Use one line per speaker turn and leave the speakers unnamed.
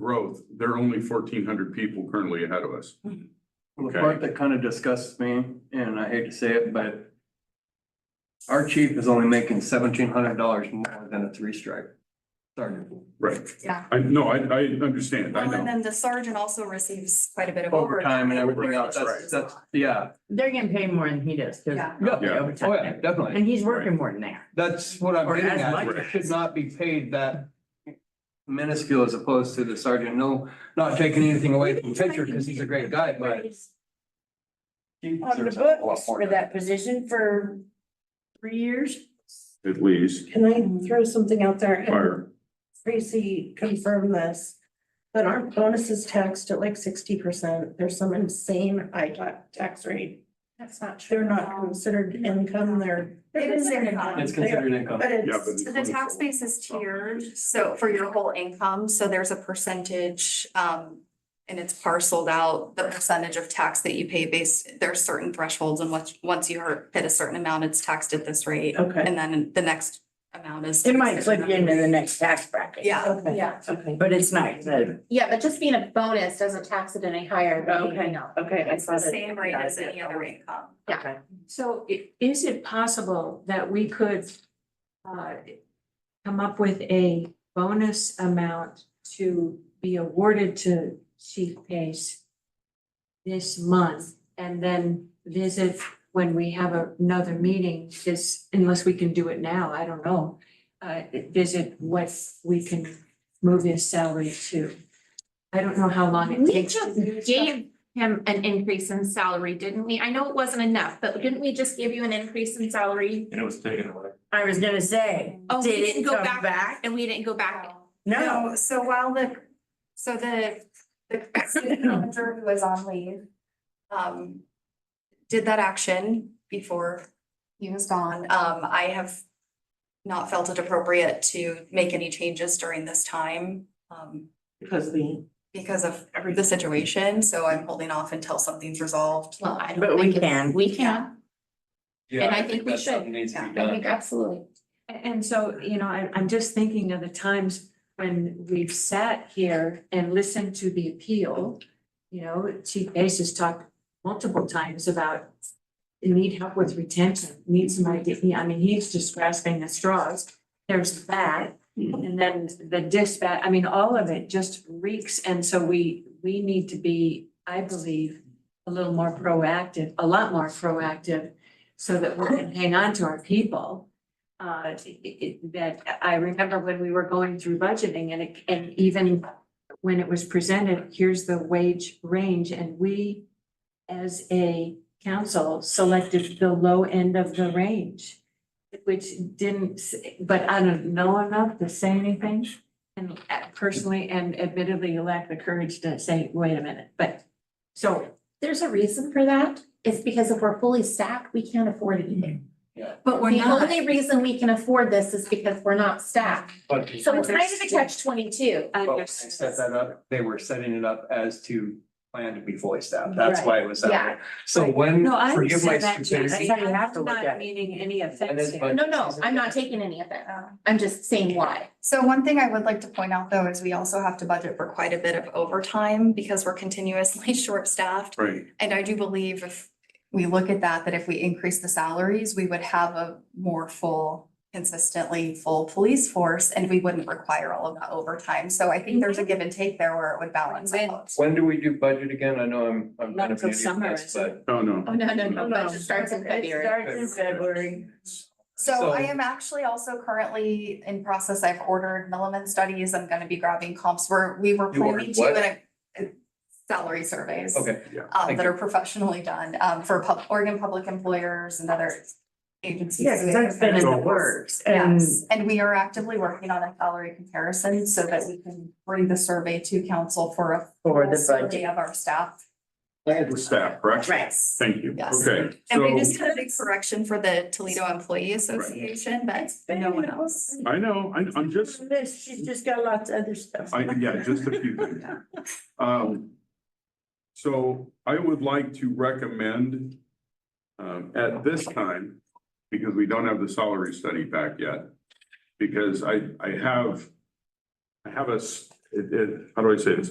growth, they're only fourteen hundred people currently ahead of us.
Well, The
Okay.
part that kind of disgusts me, and I hate to say it, but our chief is only making seventeen hundred dollars more than a three stripe. sergeant.
Right.
Yeah.
I, no, I, I understand, I
Well, and
know.
then the sergeant also receives quite a bit of
Overtime
overtime.
and everything
Overtime,
else,
which
that's,
is
that's,
a lot.
yeah.
They're getting paid more than he does, because.
Yeah.
Yeah.
Oh, yeah, definitely.
And he's working more than that.
That's what I'm
Or
getting
as
at.
much.
It should not be paid that minuscule as opposed to the sergeant. No, not taking anything away from Pitcher because he's a great guy, but. he
on the
deserves a lot
books
more
for
than
that position for three years.
At least,
Can I throw something out there? And
fire,
Tracy confirm this. But aren't bonuses taxed at like sixty percent? There's some insane high ta- tax rate.
That's not true.
They're not considered income, they're.
It is income.
It's considered income.
But
yeah, but.
it's,
So The tax base is tiered, so for your whole income, so there's a percentage, um, and it's parceled out, the percentage of tax that you pay based, there are certain thresholds and once, once you are- hit a certain amount, it's taxed at this rate.
okay,
And then the next amount is.
It
taxed
might
at
flip
another
you into
rate.
the next tax bracket.
Yeah,
Okay.
yeah.
Okay.
But it's not, the-
Yeah, but just being a bonus doesn't tax it any higher than
Okay.
anything else.
Okay,
It's the same rate as any other income.
Okay.
So i- is it possible that we could uh come up with a bonus amount to be awarded to Chief Pace this month and then visit when we have another meeting, this, unless we can do it now, I don't know. Uh, visit what we can move his salary to. I don't know how long it
We
takes. to
just
do stuff.
gave him an increase in salary, didn't we? I know it wasn't enough, but didn't we just give you an increase in salary?
And it was taken away.
I was gonna say.
Oh, we
Did it
didn't go
come
back,
back?
and we didn't go back.
No, so while the, so the, the city manager who was on leave, um, did that action before he was gone. Um, I have not felt it appropriate to make any changes during this time, um,
Because the.
because of the situation, so I'm holding off until something's resolved.
Well, I
But
don't
we
think it's-
can.
we can.
Yeah,
And I think we
that's
should.
something Needs to be
Yeah,
I
done.
think absolutely.
A- And so, you know, I'm, I'm just thinking of the times when we've sat here and listened to the appeal. You know, Chief Ace has talked multiple times about you need help with retention, need some idea, I mean, he's just grasping at straws. There's that, and then the dispatch, I mean, all of it just reeks, and so we, we need to be, I believe, a little more proactive, a lot more proactive, so that we can hang on to our people uh, it- it- that I remember when we were going through budgeting and it, and even when it was presented, here's the wage range and we as a council selected the low end of the range, which didn't, s- but I don't know enough to say anything. And uh, personally, and admittedly, you lack the courage to say, wait a minute, but so
There's a reason for that. It's because if we're fully staffed, we can't afford
Mm-hmm.
anything.
But we're
The
not.
only reason we can afford this is because we're not staffed.
But
So it's kind of a catch twenty-two.
I
But when they set that up, they were setting it up as to plan to be fully staffed. That's why it was that way. So when,
No, I
forgive my
understand that,
stupidity.
Jesse.
That's how you have to
I'm
look at
not
it.
meaning any
And
offense
it's
here.
budget
No, no,
season.
I'm not taking any of it.
Uh,
I'm just saying why.
So one thing I would like to point out though is we also have to budget for quite a bit of overtime because we're continuously short-staffed.
right,
And I do believe if we look at that, that if we increase the salaries, we would have a more full, consistently full police force and we wouldn't require all of that overtime. So I think there's
Mhm.
a give and take there where it would balance
Win-win.
out.
When do we do budget again? I know I'm, I'm
Not
kind of an
till summer,
idiot,
is it?
but.
oh, no.
Oh, no, no, no,
No,
budget starts in February.
Starts in February.
So I
So-
am actually also currently in process. I've ordered Milliman studies. I'm gonna be grabbing comps where we were
You ordered
planning to
what?
and I- salary surveys.
Okay,
um,
Thank
that
you.
are professionally done, um, for pub, Oregon public employers and other agencies.
Yes, that's been in the works and
Yes, and we are actively working on a salary comparison so that we can bring the survey to council for a
for the
full
budget.
survey of our staff.
All the staff, correct?
Yes.
Thank you,
Yes.
okay,
And we
so,
just had a big correction for the Toledo Employee Association, but no one else.
I know, I, I'm just,
This, she's just got lots of other stuff.
I, yeah, just a few things. Um, so I would like to recommend, um, at this time, because we don't have the salary study back yet, because I, I have, I have a s- it, it, how do I say this?